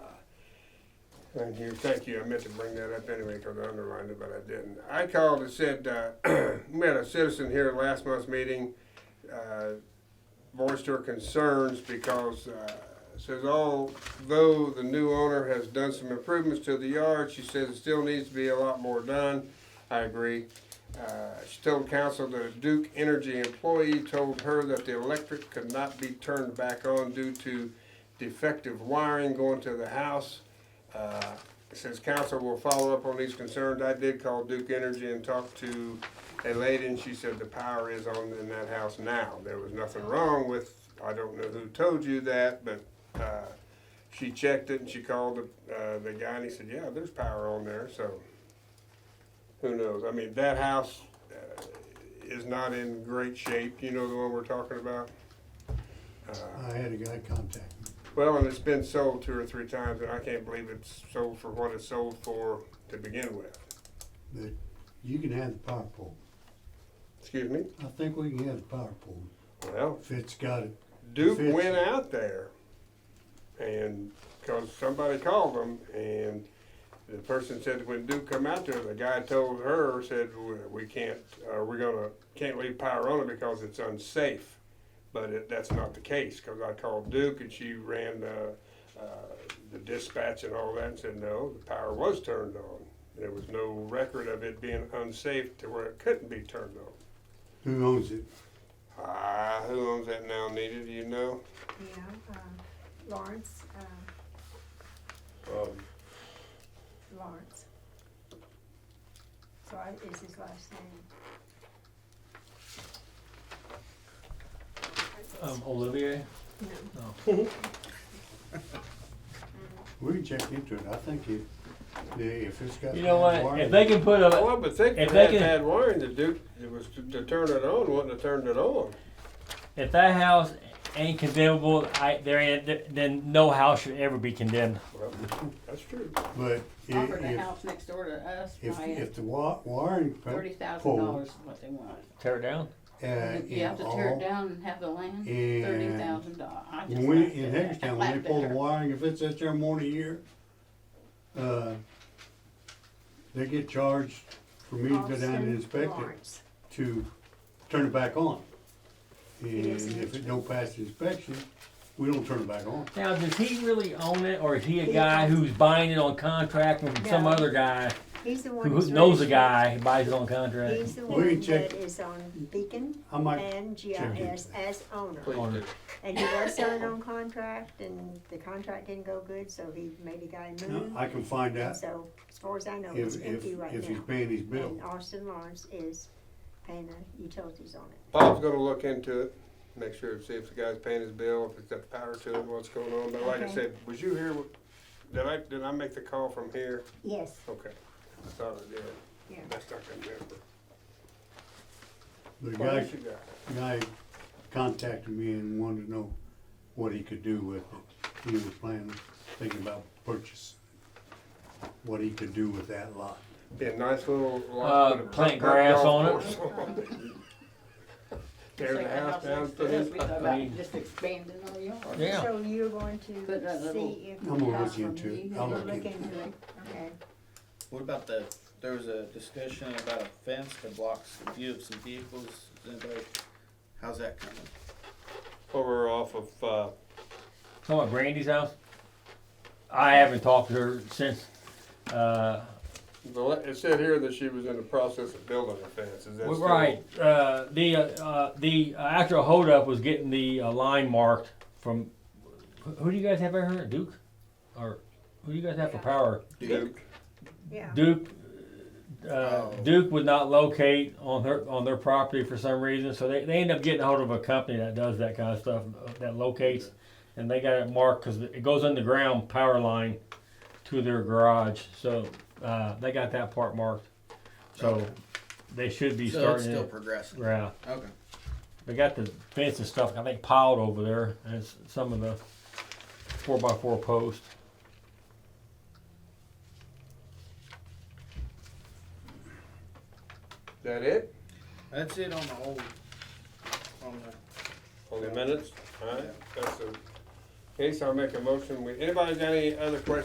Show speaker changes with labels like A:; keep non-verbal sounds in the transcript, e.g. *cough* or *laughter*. A: Thank you, thank you. I meant to bring that up anyway because I underlined it, but I didn't. I called and said, uh, *clears throat* we had a citizen here last month's meeting, uh, voiced her concerns because, uh, says although the new owner has done some improvements to the yard, she says it still needs to be a lot more done. I agree. Uh, she told council that a Duke Energy employee told her that the electric could not be turned back on due to defective wiring going to the house. Uh, Since council will follow up on these concerns, I did call Duke Energy and talk to a lady, and she said the power is on in that house now. There was nothing wrong with, I don't know who told you that, but uh, she checked it and she called the, uh, the guy, and he said, yeah, there's power on there, so who knows? I mean, that house uh, is not in great shape, you know the one we're talking about? Uh,
B: I had a guy contact me.
A: well, and it's been sold two or three times, and I can't believe it's sold for what it's sold for to begin with.
B: but you can have the power pole.
A: Excuse me?
B: I think we can have the power pole
A: Well,
B: if it's got it.
A: Duke
B: If it's-
A: went out there, and because somebody called them, and the person said when Duke come out there, the guy told her said "We- we can't, uh, we're gonna can't leave power on it because it's unsafe. But it, that's not the case because I called Duke and she ran the, uh, the dispatch and all that and said no, the power was turned on. There was no record of it being unsafe to where it couldn't be turned on.
B: Who owns it?
A: Ah, who owns that now, Nita? Do you know?
C: Yeah, um, Lawrence, um,
A: Um,
C: Lawrence. So I, is his last name.
D: Um, Olivier?
C: No,
B: We can check into it. I think if, the- if it's got.
D: You know what,
B: wiring-
D: if they can put a,
A: Well, but think
D: If
A: if
D: they
A: that
D: can-
A: bad wiring to do, it was to, to turn it on, wouldn't have turned it on.
D: if that house ain't condemnable, I, there ain't, then no house should ever be condemned.
A: Well, that's true.
B: But
E: offered a
B: i-
E: house next door to us,
B: if, if,
E: buying
B: if the wa- wiring. po-
E: thirty thousand
B: pole,
E: dollars is what they want.
D: Tear it down.
B: uh,
E: If You
B: in
E: have to tear
B: all-
E: it down and have the land,
B: and-
E: thirty thousand dollars, I just.
B: When we,
E: laughed
B: in
E: at that.
B: Hagerstown, when
E: Laughed
B: they
E: at
B: pull the
E: her.
B: wiring, if it's at their morning year, uh, they get charged for me to go down
C: Austin
B: and inspect it.
C: Lawrence.
B: to turn it back on. And
C: Yes,
B: if it
C: sir.
B: don't pass the inspection, we don't turn it back on.
D: Now, does he really own it, or is he a
C: He
D: guy
C: owns it.
D: who's buying it on contract from some
C: No.
D: other guy
C: He's the
D: who
C: one. that's
D: who knows a
C: really-
D: guy who buys it on
C: He's
D: contract?
C: the
B: We
C: one
B: can check-
C: that is on Beacon
B: I might,
C: and
B: check into
C: GIS as owner.
A: Please
D: Or-
A: do.
C: And he was selling on contract and the contract didn't go good, so he made a guy move.
B: I can find out
C: So as far as I know, it's
B: if, if,
C: empty right
B: if he's
C: now.
B: paying his bill.
C: And Austin Lawrence is paying the utilities on it.
A: Bob's gonna look into it, make sure, see if the guy's paying his bill, if it's got power to it, what's going on. But like I
C: Okay.
A: said, was you here? wh- Did I, did I make the call from here?
C: Yes,
A: Okay. I thought I did.
C: yeah.
A: Best I can remember.
B: The
A: What
B: guy,
A: else you got?
B: guy contacted me and wanted to know what he could do with it. He was planning, thinking about purchase, what he could do with that lot.
A: Be a nice little
D: Uh,
A: lot. with a
D: plant
A: putt-putt
D: grass
A: golf
D: on it.
A: course on it. Tear
E: Like
A: the house down,
E: next
A: put
E: to
A: in
E: us, We thought
D: I mean-
E: about just expanding our yard.
D: Yeah.
C: So you're going
E: Put that
C: to
E: little-
C: see if.
B: I'm gonna look
E: House from
B: into it.
E: you.
B: I'll
C: You'll
B: look
C: look
B: into it.
C: into it, okay.
F: What about the, there was a discussion about a fence that blocks the view of some vehicles, Does anybody, how's that coming?
A: Over off of, uh,
D: Talking about Brandy's house? I haven't talked to her since, uh,
A: the le- it said here that she was in the process of building a fence. Is that
D: Well,
A: still?
D: Right, uh, the, uh, uh, the uh, actual holdup was getting the uh, line marked from, who- who do you guys have out here, Duke? Or, who do you guys have for power?
A: Duke.
C: Yeah.
D: Duke, uh,
F: Oh.
D: Duke would not locate on their, on their property for some reason, so they, they end up getting a hold of a company that does that kind of stuff, uh, that locates. And they got it marked, cause it goes underground power line to their garage, so, uh, they got that part marked. So, they should be
F: So it's
D: starting
F: still
D: it,
F: progressing,
D: yeah.
F: okay.
D: They got the fence and stuff, I think, piled over there, and it's some of the four by four posts.
A: That it?
F: That's it on the whole, on the,
A: Only minutes, alright, that's the case, I'll make a motion, We anybody got any other questions